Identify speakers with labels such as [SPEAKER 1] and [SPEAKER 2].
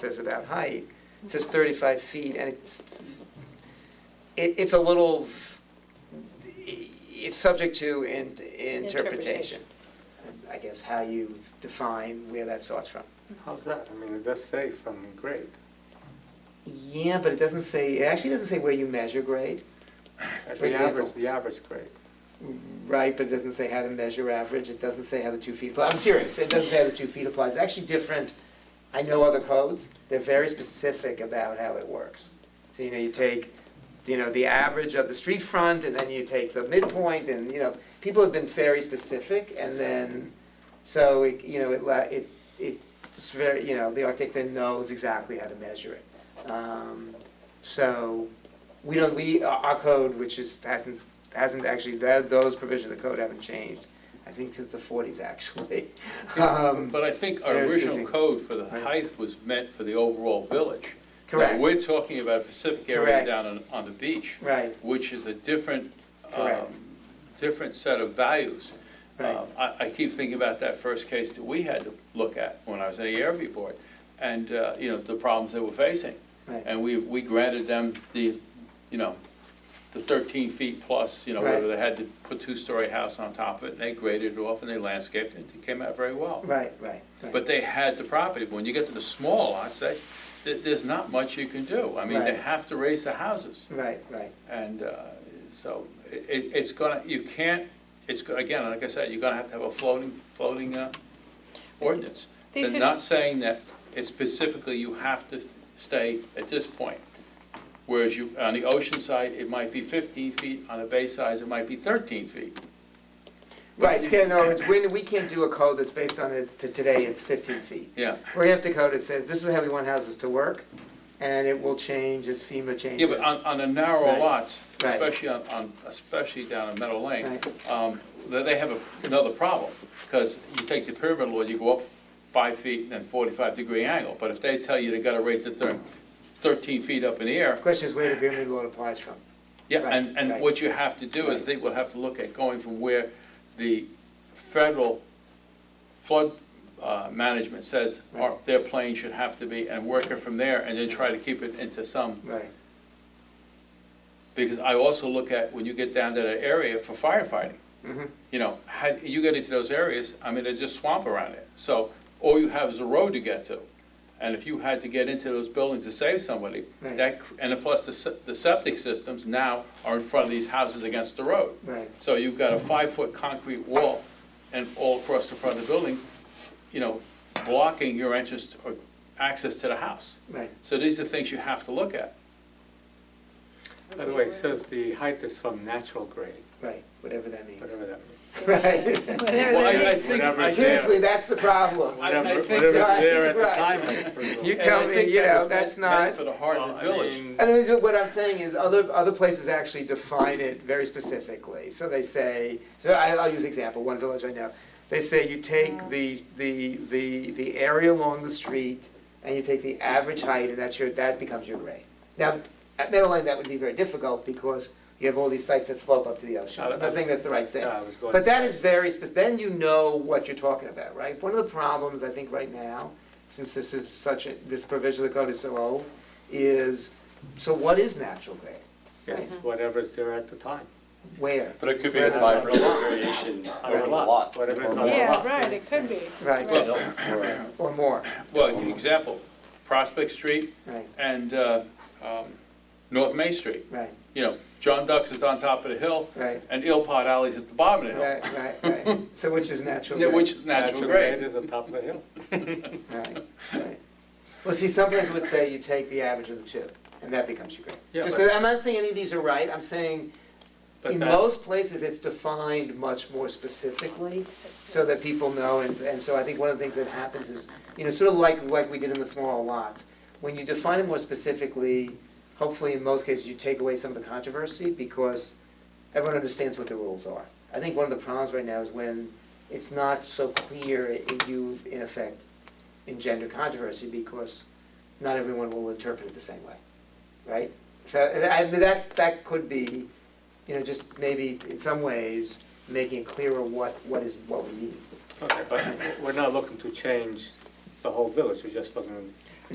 [SPEAKER 1] says about height, it says 35 feet, and it's, it, it's a little, v- it's subject to in- interpretation.
[SPEAKER 2] Interpretation.
[SPEAKER 1] I guess how you define where that starts from.
[SPEAKER 3] How's that? I mean, it does say from grade.
[SPEAKER 1] Yeah, but it doesn't say, it actually doesn't say where you measure grade, For
[SPEAKER 3] The
[SPEAKER 1] example.
[SPEAKER 3] average, the average grade.
[SPEAKER 1] right, but it doesn't say how to measure average, it doesn't say how the two feet, apply. I'm serious, it doesn't say how the two feet applies, it's actually different. I know other codes, they're very specific about how it works. So, you know, you take, you know, the average of the street front, and then you take the midpoint, and, you know, people have been very specific, and then, so, it you know, it, la- it, it's very, you know, the architect then knows exactly how to measure it. Um, So, we don't, we, our- our code, which is, hasn't, hasn't actually, tho- those provisions of the code haven't changed, I think since the forties, actually. Um,
[SPEAKER 4] But I think our
[SPEAKER 1] There's
[SPEAKER 4] original
[SPEAKER 1] the-
[SPEAKER 4] code for the
[SPEAKER 1] Right.
[SPEAKER 4] height was meant for the overall village. Now,
[SPEAKER 1] Correct,
[SPEAKER 4] we're talking about a Pacific area
[SPEAKER 1] Correct.
[SPEAKER 4] down on, on the beach,
[SPEAKER 1] right,
[SPEAKER 4] which is a different, um,
[SPEAKER 1] Correct.
[SPEAKER 4] different set of values.
[SPEAKER 1] Right.
[SPEAKER 4] Um, I, I keep thinking about that first case that we had to look at when I was on the ARB board, and, uh, you know, the problems they were facing.
[SPEAKER 1] Right.
[SPEAKER 4] And we, we granted them the, you know, the thirteen feet plus, you know,
[SPEAKER 1] Right.
[SPEAKER 4] whether they had to put two-story house on top of it, and they graded it off, and they landscaped it, it came out very well.
[SPEAKER 1] right, right, right.
[SPEAKER 4] But they had the property, when you get to the small lots, they, there- there's not much you can do. I mean, they
[SPEAKER 1] Right.
[SPEAKER 4] have to raise the houses,
[SPEAKER 1] Right, right,
[SPEAKER 4] and uh, so it, it's gonna, you can't, it's, go- again, like I said, you're gonna have to have a floating, floating uh, ordinance. They're
[SPEAKER 2] These is-
[SPEAKER 4] not saying that it's specifically you have to stay at this point. Whereas you, on the ocean side, it might be fifteen feet, on the bay side, it might be thirteen feet.
[SPEAKER 1] right, it's, no, it's, we, we can't do a code that's based on it, to today, it's fifteen feet.
[SPEAKER 4] Yeah,
[SPEAKER 1] We're gonna have to code, it says, this is how we want houses to work, and it will change as FEMA changes.
[SPEAKER 4] yeah, but on, on the narrow
[SPEAKER 1] Right.
[SPEAKER 4] lots,
[SPEAKER 1] Right.
[SPEAKER 4] especially on, on, especially down in Meadow Lane,
[SPEAKER 1] Right,
[SPEAKER 4] um, they they have a- another problem, because you take the pyramid law, you go up five feet and then forty-five degree angle, but if they tell you they gotta raise it thir- thirteen feet up in the air,
[SPEAKER 1] question is where the pyramid law applies from.
[SPEAKER 4] yeah, and,
[SPEAKER 1] Right, right.
[SPEAKER 4] and what you have to do is, they will have to look at going from where the federal flood, uh, management says our- their plane should have to be, and work it from there, and then try to keep it into some
[SPEAKER 1] Right,
[SPEAKER 4] Because I also look at, when you get down to that area for firefighting,
[SPEAKER 1] Mhm.
[SPEAKER 4] you know, how, you get into those areas, I mean, there's just swamp around it. So, all you have is a road to get to. And if you had to get into those buildings to save somebody,
[SPEAKER 1] Right.
[SPEAKER 4] that, cr- and plus the, se- the septic systems now are in front of these houses against the road.
[SPEAKER 1] right,
[SPEAKER 4] So you've got a five-foot concrete wall and all across the front of the building, you know, blocking your entrance or access to the house.
[SPEAKER 1] right.
[SPEAKER 4] So these are things you have to look at.
[SPEAKER 3] By the way, it says the height is from natural grade,
[SPEAKER 1] Right, whatever that means.
[SPEAKER 4] uh,
[SPEAKER 3] whatever that means.
[SPEAKER 1] Right.
[SPEAKER 2] Whatever
[SPEAKER 4] Well, I-
[SPEAKER 2] that
[SPEAKER 4] I
[SPEAKER 2] is.
[SPEAKER 4] think-
[SPEAKER 3] Whatever
[SPEAKER 4] I
[SPEAKER 3] it's
[SPEAKER 4] think-
[SPEAKER 1] Seriously, that's the problem.
[SPEAKER 4] I- I
[SPEAKER 3] Whatever,
[SPEAKER 4] think
[SPEAKER 3] whatever's
[SPEAKER 1] so.
[SPEAKER 3] there at the
[SPEAKER 1] Right.
[SPEAKER 3] time. like, for example.
[SPEAKER 1] You
[SPEAKER 4] And
[SPEAKER 1] tell
[SPEAKER 4] I
[SPEAKER 1] me,
[SPEAKER 4] think
[SPEAKER 1] you
[SPEAKER 4] that
[SPEAKER 1] know,
[SPEAKER 4] was
[SPEAKER 1] that's
[SPEAKER 4] meant- meant
[SPEAKER 1] not,
[SPEAKER 4] For the heart
[SPEAKER 3] Well,
[SPEAKER 4] of
[SPEAKER 3] I
[SPEAKER 4] the village.
[SPEAKER 3] mean,
[SPEAKER 1] and then what I'm saying is, other, other places actually define it very specifically. So they say, so I, I'll use example, one village I know. They say you take the, the, the, the area along the street, and you take the average height, and that's your, that becomes your grade. Now, at Meadow Lane, that would be very difficult, because you have all these sites that slope up to the ocean. I'm not saying that's the right thing.
[SPEAKER 3] Yeah, I was going
[SPEAKER 1] But
[SPEAKER 3] to
[SPEAKER 1] that
[SPEAKER 3] say.
[SPEAKER 1] is very specific, then you know what you're talking about, right? One of the problems, I think, right now, since this is such, a this provision of the code is so old, is, so what is natural grade?
[SPEAKER 3] Yes, whatever's there at the time.
[SPEAKER 1] Where?
[SPEAKER 5] But it could be
[SPEAKER 1] Where
[SPEAKER 5] a
[SPEAKER 1] the
[SPEAKER 5] five
[SPEAKER 1] sidewalk-
[SPEAKER 5] percent variation over the lot.
[SPEAKER 3] Whatever it's on the
[SPEAKER 2] Yeah,
[SPEAKER 3] lot.
[SPEAKER 2] right, it could be.
[SPEAKER 1] Right,
[SPEAKER 2] Right.
[SPEAKER 5] Or-
[SPEAKER 1] or more,
[SPEAKER 4] Well, example, Prospect Street
[SPEAKER 1] right,
[SPEAKER 4] and uh, um, North Main Street.
[SPEAKER 1] right,
[SPEAKER 4] You know, John Ducks is on top of the hill
[SPEAKER 1] right,
[SPEAKER 4] and Ill Pot Alley's at the bottom of the hill.
[SPEAKER 1] right, right, right. So which is natural
[SPEAKER 4] Yeah,
[SPEAKER 1] grade?
[SPEAKER 4] Which is natural grade.
[SPEAKER 3] is on top of the hill.
[SPEAKER 1] Right, right. Well, see, some places would say you take the average of the two, and that becomes your grade.
[SPEAKER 3] Yeah,
[SPEAKER 1] Just,
[SPEAKER 3] but-
[SPEAKER 1] I'm not saying any of these are right, I'm saying
[SPEAKER 3] But
[SPEAKER 1] In
[SPEAKER 3] that,
[SPEAKER 1] most places, it's defined much more specifically, so that people know, and, and so I think one of the things that happens is, you know, sort of like, like we did in the small lots, when you define it more specifically, hopefully in most cases, you take away some of the controversy, because everyone understands what the rules are. I think one of the problems right now is when it's not so clear, it- you, in effect, engender controversy, because not everyone will interpret it the same way, right? So, and I, but that's, that could be, you know, just maybe in some ways, making it clearer what, what is, what we need.
[SPEAKER 3] okay, but we're not looking to change the whole village, we're just looking